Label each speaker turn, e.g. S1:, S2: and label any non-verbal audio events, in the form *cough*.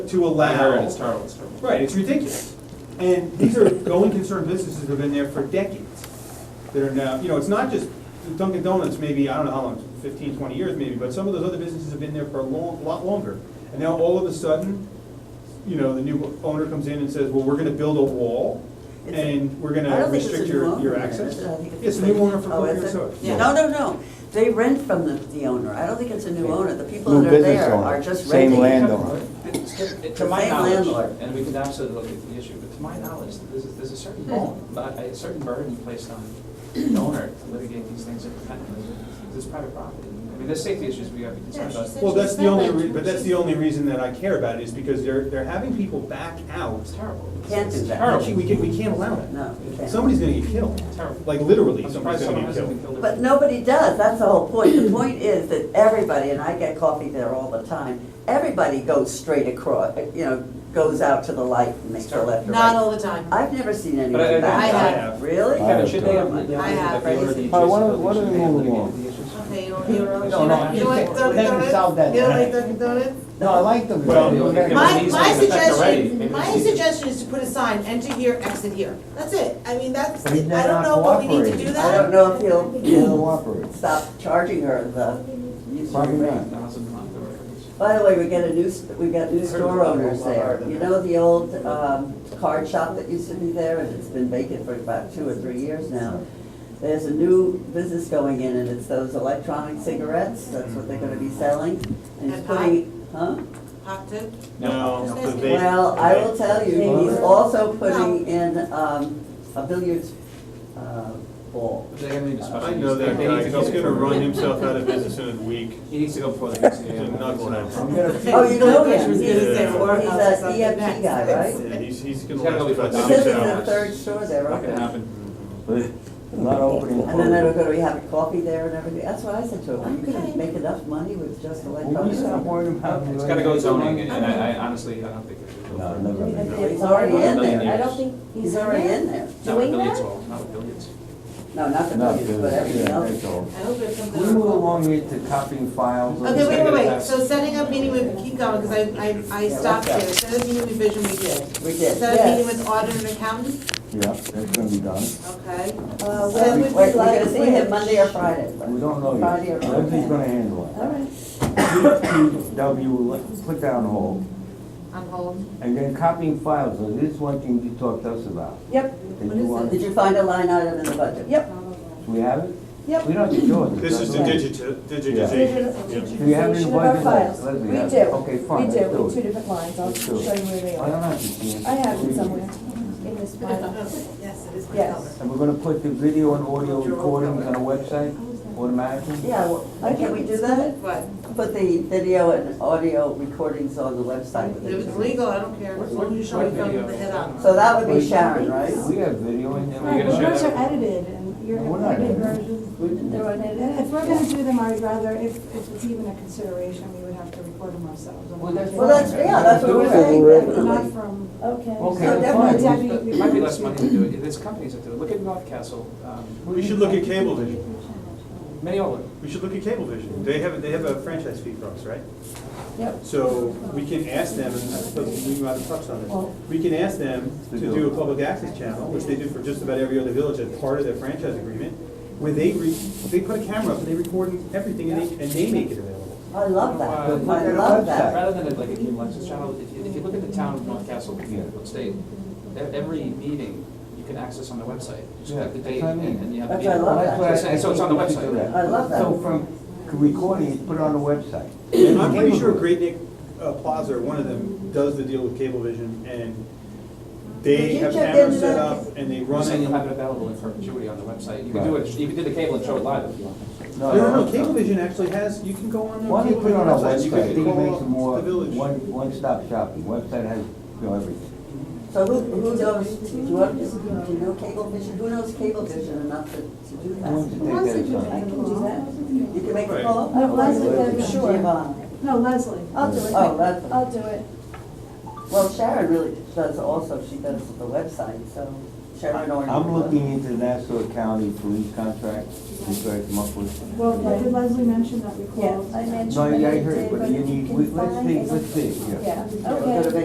S1: to
S2: I heard it's
S1: allow,
S2: terrible, it's terrible.
S1: right, it's ridiculous. And these are going concern businesses that have been there for decades, that are now, you know, it's not just Dunkin' Donuts, maybe, I don't know how long, 15, 20 years maybe, but some of those other businesses have been there for a long, lot longer. And now all of a sudden, you know, the new owner comes in and says, well, we're gonna build a wall,
S3: It's a-
S1: and we're
S3: I
S1: gonna
S3: don't think it's a
S1: restrict
S3: new
S1: your,
S3: owner,
S1: your
S3: is
S1: access.
S3: it? I think
S1: It's a new owner for
S3: Oh,
S1: Coke
S3: is
S1: and
S3: it?
S1: Soda.
S3: Yeah, No, no, no, they rent from the, the owner, I don't think it's a new owner, the people
S4: New
S3: that are
S4: business
S3: there
S4: owner,
S3: are just renting.
S4: same landowner.
S2: To
S3: The
S2: to my
S3: same
S2: knowledge,
S3: landlord.
S2: and we can absolutely look at the issue, but to my knowledge, there's, there's a certain bone, but a certain burden placed on the owner to litigate these things and protect them, because it's private property. I mean, there's safety issues we have to concern
S5: Yeah, she
S2: about.
S5: said-
S1: Well, that's the only, re- but that's the
S5: She's-
S1: only reason that I care about it, is because they're, they're having people back out
S2: It's terrible. It's-
S3: Can't do
S2: it's
S3: that.
S2: Terrible.
S1: Actually, we can, we can't allow that.
S3: No, you can't.
S1: Somebody's gonna get killed,
S2: It's Terrible.
S1: like literally,
S2: I'm surprised
S1: somebody's
S2: someone
S1: gonna get killed.
S2: hasn't been killed.
S3: But nobody does, that's the whole point, the point is that everybody, and I get coffee there all the time, everybody goes straight across, you know, goes out to the light and makes a left or
S5: Not
S3: right.
S5: all the time.
S3: I've never seen
S2: But I-
S3: anyone
S5: I
S3: back
S5: have.
S3: out.
S1: have.
S3: Really?
S4: I have,
S2: Kevin, should they have?
S3: too.
S2: the-
S5: I have,
S2: the owner of the
S4: All right, why don't-
S2: adjacent
S4: why don't we
S2: building, should
S4: move
S2: they have
S4: along?
S2: litigated the issues?
S5: Okay, you don't, you don't, you
S4: No, no,
S5: don't, you
S4: I
S5: don't like
S4: can't-
S5: Dunkin'
S4: we haven't solved that
S5: Donuts? You don't
S4: yet.
S5: like Dunkin' Donuts?
S4: No, I like them.
S1: Well,
S4: They're very-
S2: Well,
S5: My,
S2: these
S5: my
S2: things affect already. Maybe
S5: suggestion, my
S2: it's easier.
S5: suggestion is to put a sign, enter here, exit here. That's it. I mean, that's, I
S4: He's not
S5: don't know what we need to
S4: cooperating.
S5: do that.
S3: I don't know if he'll,
S4: They're
S3: he'll
S4: cooperative.
S3: stop charging her the *laughs*
S4: Probably
S3: usual rate.
S4: not.
S2: The house is not the reference.
S3: By the way, we get a new, s- we got new store owners there. You know the old um, card shop that used to be there, and it's been vacant for about two or three years now? There's a new business going in, and it's those electronic cigarettes, that's what they're gonna be selling. And he's
S5: And pie?
S3: putting, huh?
S5: Hot tub?
S1: No,
S5: No.
S1: the vape-
S3: Well, I will tell you, he's also
S5: No.
S3: putting in um, a billiards uh, ball.
S2: But They have any discussion.
S1: I know that
S2: They need
S1: guy,
S2: to
S1: he's
S2: go
S1: gonna
S2: before-
S1: run himself out of business in a week.
S2: He needs to go before the MCA.
S1: He's a knucklehead.
S4: I'm gonna-
S3: Oh, you know him?
S5: He's
S1: Yeah.
S3: He's a EFT guy, right?
S1: Yeah, he's, he's gonna
S2: He's gotta go
S1: last about
S3: He
S2: before
S1: six
S3: says it's
S2: Domino's.
S3: the
S1: hours.
S3: third store there,
S2: Not gonna
S3: okay?
S2: happen.
S4: Not opening.
S3: And then it'll go to, we have coffee there and everything, that's what I said to him, are you gonna make enough money with just
S4: Will you stop
S3: electronics?
S4: worrying about?
S2: It's gotta go zoning, and and I I honestly, I don't think it should.
S4: No, never.
S3: He's already in there,
S6: I don't think
S3: he's already in
S2: Not
S3: there.
S2: with
S6: Doing
S2: billiards,
S6: that?
S2: well, not with billiards.
S3: No, not the
S4: Not
S3: billions, but everything
S4: business,
S3: else.
S4: yeah,
S5: I hope it comes
S4: We move
S5: out.
S4: along here to copying files.
S5: Okay, wait,
S2: Let's
S5: wait,
S2: get
S5: wait,
S2: it
S5: so setting up meeting with, keep going, because I, I, I
S3: Yeah,
S5: stopped
S3: let's
S5: here,
S3: go.
S5: set up meeting with vision, we did.
S3: We did,
S5: Set up meeting
S3: yes.
S5: with auditor and accountant,
S4: Yeah, that's gonna be done.
S5: okay.
S6: Uh,
S3: Wait,
S5: Well, we-
S6: when
S3: we're
S6: would you like
S3: gonna see him
S6: to
S3: Monday or Friday.
S4: We don't know
S3: Friday or
S4: yet. Everybody's gonna
S3: Monday.
S4: handle
S3: All right.
S4: it. W, will put down hold.
S5: On hold.
S4: And then copying files, so this is one thing you talked to us about.
S6: Yep,
S4: Did
S5: What
S4: you
S5: is
S4: want-
S3: Did you find a line item in the budget?
S6: yep,
S4: Do we have it?
S6: yep.
S4: We don't have to do it.
S1: This is the digiti- digitization.
S4: Do you have any
S6: Digitization of our
S4: budget?
S6: files.
S4: Leslie,
S6: We
S4: have-
S6: do,
S4: okay, fine,
S6: we
S4: let's do
S6: do,
S4: it.
S6: two different lines, I'll
S4: Let's do
S6: show
S4: it.
S6: you where they
S4: I don't
S6: are.
S4: have to see it.
S6: I have it somewhere, in this file.
S5: Yes, it is my
S6: Yes.
S5: color.
S4: And we're gonna put the video and audio recordings on a website automatically?
S3: Yeah, well, can we do that?
S5: What?
S3: Put the video and audio recordings on the website.
S5: If it's legal, I don't care, as long as you show me from the head up.
S3: So that would be Sharon, right?
S4: We have video and then
S2: Right, but
S4: we're gonna.
S2: share
S6: those
S2: that
S6: are edited and you're.
S4: No, we're not
S6: edited
S4: editing.
S6: versions.
S3: We didn't do it.
S6: And if we're gonna do them, I'd rather, if, if it's even a consideration, we would have to record them ourselves.
S4: Well, that's
S3: Well, that's, yeah, that's what we're saying,
S6: Not
S3: definitely.
S6: from,
S4: Okay,
S6: okay.
S3: So
S4: that's
S3: definitely
S4: fine.
S6: Deputy-
S2: It might be less money to do it, there's companies that do it, look at North Castle, um,
S1: We should look at Cablevision,
S2: many of them.
S1: we should look at Cablevision, they have, they have a franchise fee for us, right?
S6: Yep.
S1: So we can ask them, and I suppose we might have touched on this, we can ask them to do a public access channel, which they do for just about every other village as part of their franchise agreement, where they, re- they put a camera up and they record everything and they, and they make it available.
S3: I love that,
S2: Uh, look
S3: I
S2: at a
S3: love
S4: website.
S3: that.
S2: Rather than like a new Lexus channel, if you, if you look at the town of North Castle,
S4: Yeah.
S2: what state, e- every meeting you can access on the website, you just
S4: Yeah,
S2: have the date
S4: that's what I
S2: and
S4: mean.
S2: and you have the
S3: That's
S2: meeting.
S3: what I love.
S4: That's what I-
S2: So it's- so it's on the website.
S3: I love that.
S4: So from recording, it, put it on the website.
S1: And I'm pretty sure Great Neck uh, Plaza, or one of them, does the deal with Cablevision, and
S3: Did
S1: they
S3: you
S1: have
S3: check
S1: cameras
S3: into
S1: set
S3: that?
S1: up, and they
S2: You're
S1: run
S2: saying
S1: it.
S2: you'll have it available in perpetuity on the website, you can do it, you can do the cable and show it live if you want.
S1: No, no, no, Cablevision actually has, you can go on their
S4: Why don't you put it on a
S1: Cablevision website,
S4: website,
S1: you
S4: I think
S1: can
S4: it makes it
S1: call
S4: more,
S1: up the village.
S4: one, one-stop shopping, website has, you know, everything.
S3: So who, who knows, do you want, do you know Cablevision, who knows Cablevision enough to, to do
S4: Why don't you
S3: that?
S4: take that as
S3: I
S4: something?
S3: can do that, you can make a call?
S6: Oh, Leslie,
S4: Okay,
S6: then, sure.
S3: Giovanni.
S6: No, Leslie, I'll do it.
S3: Oh, Leslie.
S6: I'll do it.
S3: Well, Sharon really does also, she does the website, so Chairman Norton.
S4: I'm looking into Nassau County police contract, to try to come up with.
S7: Well, did Leslie mention that we called?
S6: Yes, I mentioned
S4: No,
S6: that
S4: yeah, I
S6: it
S4: heard,
S6: did,
S4: but
S6: but
S4: you
S6: if
S4: need,
S6: can
S4: we- let's
S6: find
S4: see,
S6: it-
S4: let's see, yeah.
S6: Yeah,
S3: We're gonna
S6: okay.
S3: make